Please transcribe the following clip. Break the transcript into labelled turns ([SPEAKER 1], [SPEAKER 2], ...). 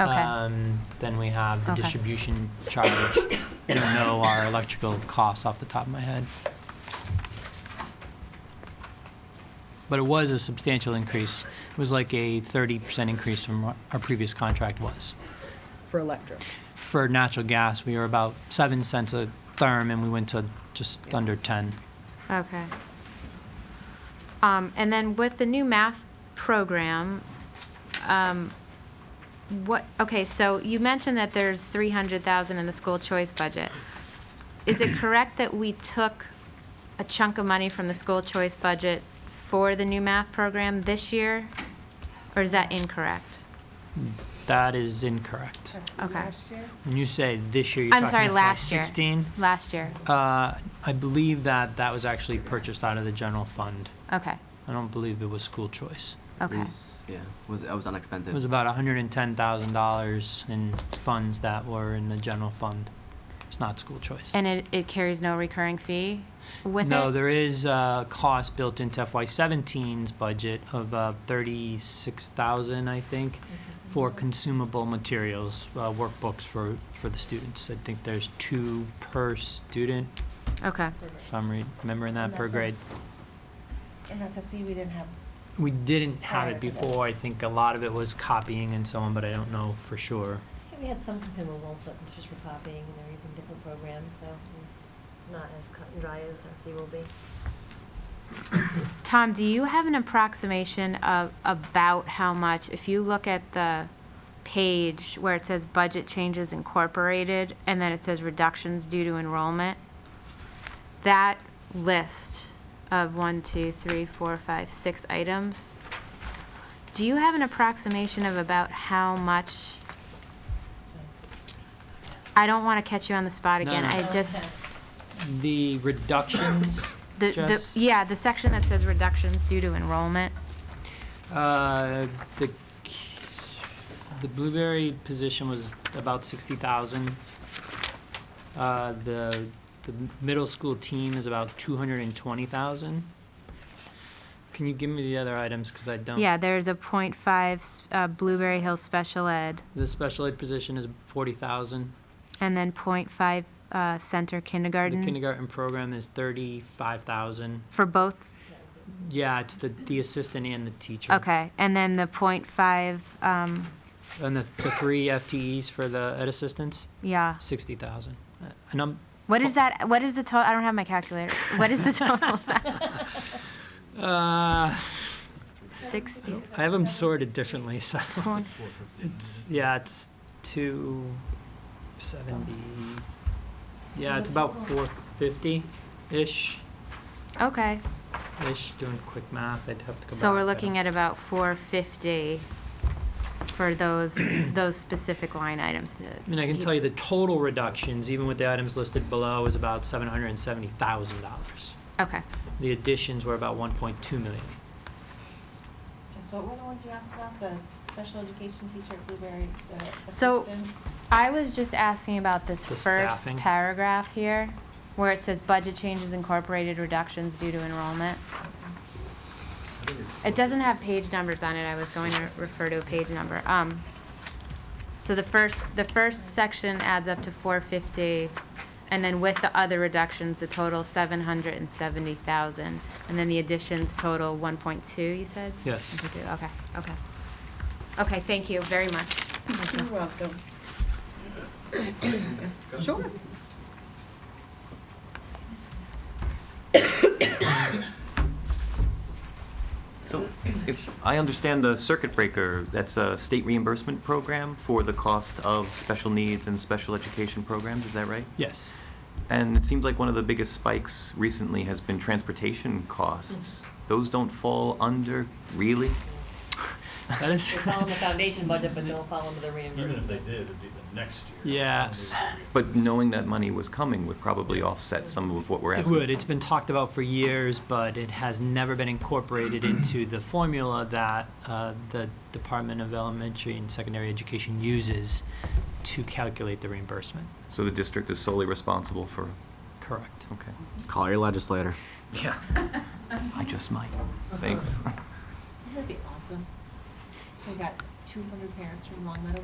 [SPEAKER 1] Okay.
[SPEAKER 2] Um, Then we have the
[SPEAKER 1] Okay.
[SPEAKER 2] distribution charge. I don't know our electrical costs off the top of my head. But it was a substantial increase. It was like a 30% increase from what our previous contract was.
[SPEAKER 3] for electric.
[SPEAKER 2] For natural gas, we were about 7 cents a therm, and we went to just under 10.
[SPEAKER 1] Okay. Um, and then with the new math program, um, what, okay, so you mentioned that there's three hundred thousand in the school choice budget. Is it correct that we took a chunk of money from the school choice budget for the new math program this year? Or is that incorrect?
[SPEAKER 2] That is incorrect.
[SPEAKER 1] Okay.
[SPEAKER 2] When you say this year, you're
[SPEAKER 1] I'm
[SPEAKER 2] talking
[SPEAKER 1] sorry,
[SPEAKER 2] FY
[SPEAKER 1] last year.
[SPEAKER 2] 16?
[SPEAKER 1] Last year,
[SPEAKER 2] Uh, I believe that that was actually purchased out of the general fund.
[SPEAKER 1] okay,
[SPEAKER 2] I don't believe it was school choice.
[SPEAKER 1] okay,
[SPEAKER 4] was- yeah, was it was unexpected.
[SPEAKER 2] It was about hundred and ten thousand dollars in funds that were in the general fund. It's not school choice.
[SPEAKER 1] and it, it carries no recurring fee with it?
[SPEAKER 2] No, there is a cost built into FY 17s budget of uh, thirty-six thousand, I think, for
[SPEAKER 5] Mm-hmm.
[SPEAKER 2] consumable materials, uh, workbooks for, for the students. I think there's two per student,
[SPEAKER 1] Okay,
[SPEAKER 2] if I'm re- remembering that,
[SPEAKER 5] And
[SPEAKER 2] per
[SPEAKER 5] that's a-
[SPEAKER 2] grade.
[SPEAKER 5] And that's a fee we didn't have.
[SPEAKER 2] We didn't have
[SPEAKER 5] Prior
[SPEAKER 2] it
[SPEAKER 5] to this.
[SPEAKER 2] before. I think a lot of it was copying and so on, but I don't know for sure.
[SPEAKER 5] We had some consumables, but it's just for copying, and they're using different programs, so it's not as cut and dry as our fee will be.
[SPEAKER 1] Tom, do you have an approximation of about how much, if you look at the page where it says budget changes incorporated, and then it says reductions due to enrollment, that list of one, two, three, four, five, six items, do you have an approximation of about how much? I don't want to catch you on the spot
[SPEAKER 2] No,
[SPEAKER 1] again,
[SPEAKER 2] no.
[SPEAKER 1] I
[SPEAKER 5] Okay.
[SPEAKER 1] just,
[SPEAKER 2] The reductions,
[SPEAKER 1] the, the,
[SPEAKER 2] Jess?
[SPEAKER 1] yeah, the section that says reductions due to enrollment.
[SPEAKER 2] Uh, the, c- the blueberry position was about sixty thousand. Uh, the, the middle school team is about two hundred and twenty thousand. Can you give me the other items, cause I don't?
[SPEAKER 1] Yeah, there's a point five, s- uh, Blueberry Hill Special Ed,
[SPEAKER 2] The special ed position is forty thousand.
[SPEAKER 1] and then point five, uh, Center
[SPEAKER 2] The
[SPEAKER 1] Kindergarten
[SPEAKER 2] kindergarten program is thirty-five thousand.
[SPEAKER 1] for both,
[SPEAKER 2] Yeah, it's the, the assistant and the teacher.
[SPEAKER 1] okay, and then the point five, um,
[SPEAKER 2] And the, the three FTEs for the ed assistants,
[SPEAKER 1] yeah.
[SPEAKER 2] sixty thousand. Uh, And I'm,
[SPEAKER 1] What is that, what is the total, I don't have my calculator, what is the total?
[SPEAKER 2] uh,
[SPEAKER 1] Sixty,
[SPEAKER 2] I have them sorted differently, so.
[SPEAKER 1] twenty,
[SPEAKER 2] It's, yeah, it's two seventy, yeah, it's about four fifty-ish,
[SPEAKER 1] okay,
[SPEAKER 2] ish, doing quick math, I'd have to go back.
[SPEAKER 1] so we're looking at about four fifty for those, those specific line items. to-
[SPEAKER 2] I mean, I can tell you the total reductions, even with the items listed below, is about seven hundred and seventy thousand dollars.
[SPEAKER 1] Okay,
[SPEAKER 2] The additions were about one point two million.
[SPEAKER 5] Just what were the ones you asked about, the special education teacher at Blueberry, the
[SPEAKER 1] So-
[SPEAKER 5] assistant?
[SPEAKER 1] I was just asking about this
[SPEAKER 2] The
[SPEAKER 1] first
[SPEAKER 2] staffing.
[SPEAKER 1] paragraph here, where it says budget changes incorporated reductions due to enrollment. It doesn't have page numbers on it, I was going to refer to a page number. Um, so the first, the first section adds up to four fifty, and then with the other reductions, the total seven hundred and seventy thousand. And then the additions total one point two, you said?
[SPEAKER 2] Yes.
[SPEAKER 1] 1.2, Okay, okay. Okay, thank you very much. Thank you.
[SPEAKER 3] You're welcome. Sure.
[SPEAKER 6] So if I understand the circuit breaker, that's a state reimbursement program for the cost of special needs and special education programs, is that right?
[SPEAKER 2] Yes.
[SPEAKER 6] And it seems like one of the biggest spikes recently has been transportation
[SPEAKER 2] Mm-hmm.
[SPEAKER 6] costs. Those don't fall under, really?
[SPEAKER 2] That is.
[SPEAKER 7] They fall in the foundation budget, but don't fall into the
[SPEAKER 8] Even if
[SPEAKER 7] reimbursement.
[SPEAKER 8] they did, it'd be the next year.
[SPEAKER 2] Yes.
[SPEAKER 6] But knowing that money was coming would probably offset some of what we're
[SPEAKER 2] It
[SPEAKER 6] asking.
[SPEAKER 2] would. It's been talked about for years, but it has never been incorporated into the formula that uh, the Department of Elementary and Secondary Education uses to calculate the reimbursement.
[SPEAKER 6] So the district is solely responsible for,
[SPEAKER 2] Correct.
[SPEAKER 6] okay.
[SPEAKER 4] Call your legislator.
[SPEAKER 6] Yeah. I just might. Thanks.
[SPEAKER 5] That'd be awesome. We got two hundred parents from Long Meadow